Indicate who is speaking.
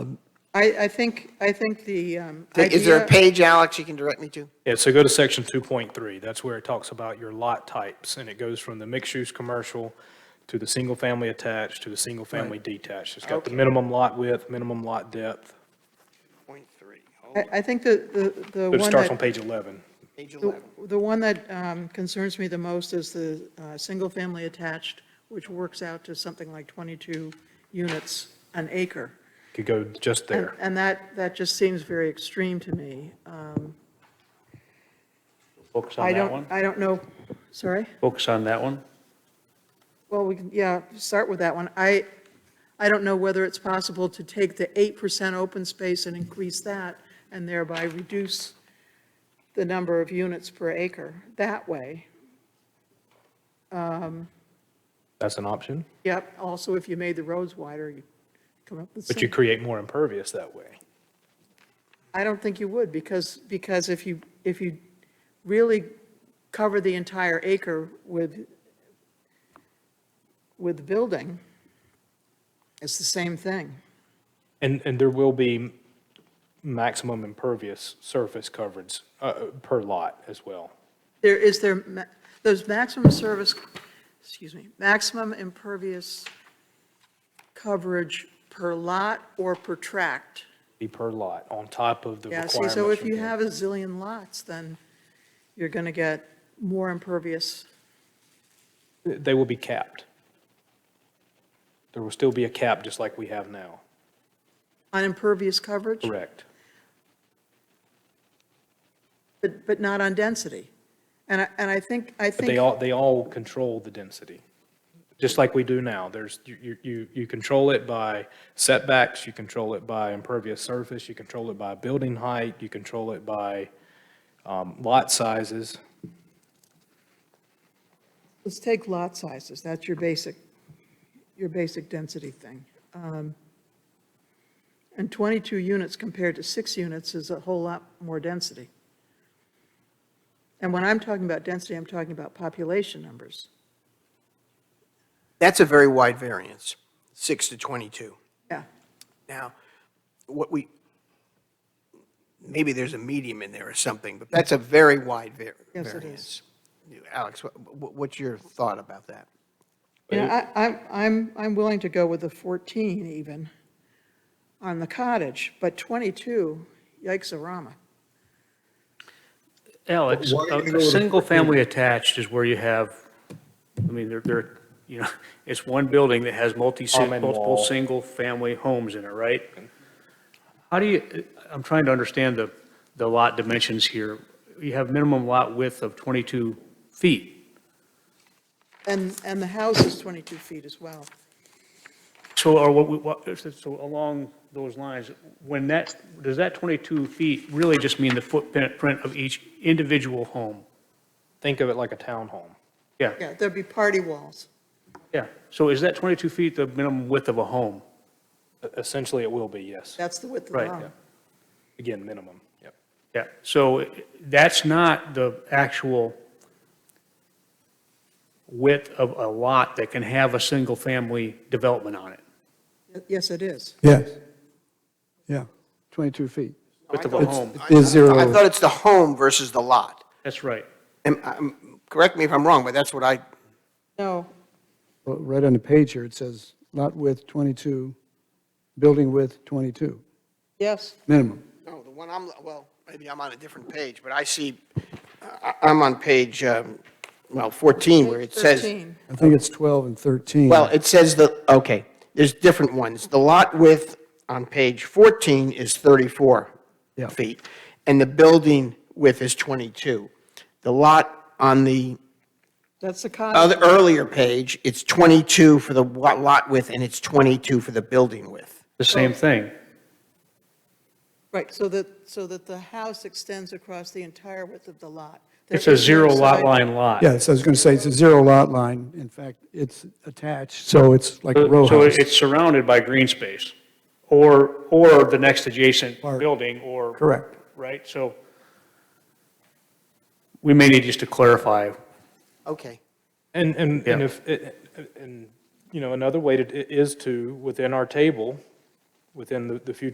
Speaker 1: I, I think, I think the um, idea.
Speaker 2: Is there a page, Alex, you can direct me to?
Speaker 3: Yeah, so go to section 2.3. That's where it talks about your lot types, and it goes from the mixed-use commercial to the single-family attached to the single-family detached. It's got the
Speaker 2: Okay.
Speaker 3: minimum lot width, minimum lot depth,
Speaker 2: Point three, oh,
Speaker 1: I, I think the, the the
Speaker 3: but it
Speaker 1: one
Speaker 3: starts on
Speaker 1: that,
Speaker 3: page 11.
Speaker 2: page
Speaker 1: the-
Speaker 2: eleven.
Speaker 1: the one that um, concerns me the most is the uh, single-family attached, which works out to something like 22 units an acre.
Speaker 3: Could go just
Speaker 1: And-
Speaker 3: there.
Speaker 1: And that, that just seems very extreme to me. Um,
Speaker 4: Focus
Speaker 1: I
Speaker 4: on that
Speaker 1: don't,
Speaker 4: one.
Speaker 1: I don't know, sorry?
Speaker 4: Focus on that one.
Speaker 1: Well, we can, yeah, start with that one. I, I don't know whether it's possible to take the 8% open space and increase that and thereby reduce the number of units per acre that way.
Speaker 3: That's an option,
Speaker 1: Yep, also if you made the roads wider, you come up with
Speaker 3: but you
Speaker 1: some.
Speaker 3: create more impervious that way.
Speaker 1: I don't think you would because, because if you, if you really cover the entire acre with, with the building, it's the same thing.
Speaker 3: And, and there will be maximum impervious surface coverage uh, per lot as well.
Speaker 1: There is there, ma- those maximum service, excuse me, maximum impervious coverage per lot or per tract.
Speaker 3: Be per lot on top of the
Speaker 1: Yeah,
Speaker 3: requirements.
Speaker 1: see, so if
Speaker 3: from
Speaker 1: you
Speaker 3: the-
Speaker 1: have a zillion lots, then you're going to get more impervious.
Speaker 3: They will be capped. There will still be a cap, just like we have now.
Speaker 1: On impervious coverage,
Speaker 3: Correct.
Speaker 1: but, but not on density. And I, and I think, I
Speaker 3: But
Speaker 1: think.
Speaker 3: they all, they all control the density, just like we do now. There's, you, you- you, you control it by setbacks, you control it by impervious surface, you control it by building height, you control it by um, lot sizes.
Speaker 1: Let's take lot sizes, that's your basic, your basic density thing. Um, And 22 units compared to six units is a whole lot more density. And when I'm talking about density, I'm talking about population numbers.
Speaker 2: That's a very wide variance, six to 22.
Speaker 1: Yeah,
Speaker 2: Now, what we, maybe there's a medium in there or something, but that's a very wide var-
Speaker 1: Yes, it
Speaker 2: variance. Alex, wha- wha- what's your thought about that?
Speaker 1: you know, I, I'm, I'm, I'm willing to go with the 14 even on the cottage, but 22, yikes-a-rama.
Speaker 4: Alex, a, a single-family attached is where you have, I mean, there, there, you know, it's one building that has multi,
Speaker 3: Common
Speaker 4: multiple
Speaker 3: wall.
Speaker 4: single-family homes in it, right? How do you, I'm trying to understand the, the lot dimensions here. You have minimum lot width of 22 feet.
Speaker 1: And, and the house is 22 feet as well.
Speaker 4: So are what, we- what, so along those lines, when that, does that 22 feet really just mean the footprint of each individual home?
Speaker 3: Think of it like a townhome.
Speaker 4: Yeah.
Speaker 1: Yeah, there'd be party walls.
Speaker 4: Yeah, so is that 22 feet the minimum width of a home?
Speaker 3: E-, Essentially, it will be, yes.
Speaker 1: That's the width of the
Speaker 4: Right,
Speaker 1: home.
Speaker 4: yeah.
Speaker 3: Again, minimum, yep.
Speaker 4: Yeah, so that's not the actual width of a lot that can have a single-family development on it.
Speaker 1: Yes, it is.
Speaker 5: Yes. Yeah, 22 feet.
Speaker 4: Width of a home,
Speaker 5: It is zero.
Speaker 2: I thought it's the home versus the lot.
Speaker 4: that's right.
Speaker 2: Am- I'm- Correct me if I'm wrong, but that's what I,
Speaker 1: No,
Speaker 5: Well, Right on the page here, it says lot width 22, building width 22,
Speaker 1: yes,
Speaker 5: minimum.
Speaker 2: no, the one I'm, well, maybe I'm on a different page, but I see, uh, I- I'm on page, um, well, 14, where it says.
Speaker 1: 13.
Speaker 5: I think it's 12 and 13.
Speaker 2: Well, it says the, okay, there's different ones. The lot width on page 14 is 34
Speaker 5: Yeah.
Speaker 2: feet, and the building width is 22. The lot on the
Speaker 1: That's the
Speaker 2: other,
Speaker 1: cottage.
Speaker 2: earlier page, it's 22 for the wa- lot width, and it's 22 for the building width.
Speaker 4: The same thing.
Speaker 1: Right, so that, so that the house extends across the entire width of the lot. There
Speaker 4: It's a
Speaker 1: is no
Speaker 4: zero lot
Speaker 1: side-
Speaker 4: line lot.
Speaker 5: Yeah, so I was going to say, it's a zero lot line. In fact, it's attached, so it's like a row
Speaker 4: So
Speaker 5: house.
Speaker 4: it's surrounded by green space, or, or the next adjacent
Speaker 5: Park.
Speaker 4: building, or.
Speaker 5: Correct.
Speaker 4: Right, so we may need just to clarify
Speaker 2: Okay.
Speaker 3: And, and, and
Speaker 4: Yeah.
Speaker 3: if, eh, and, you know, another way to, is to, within our table, within the, the future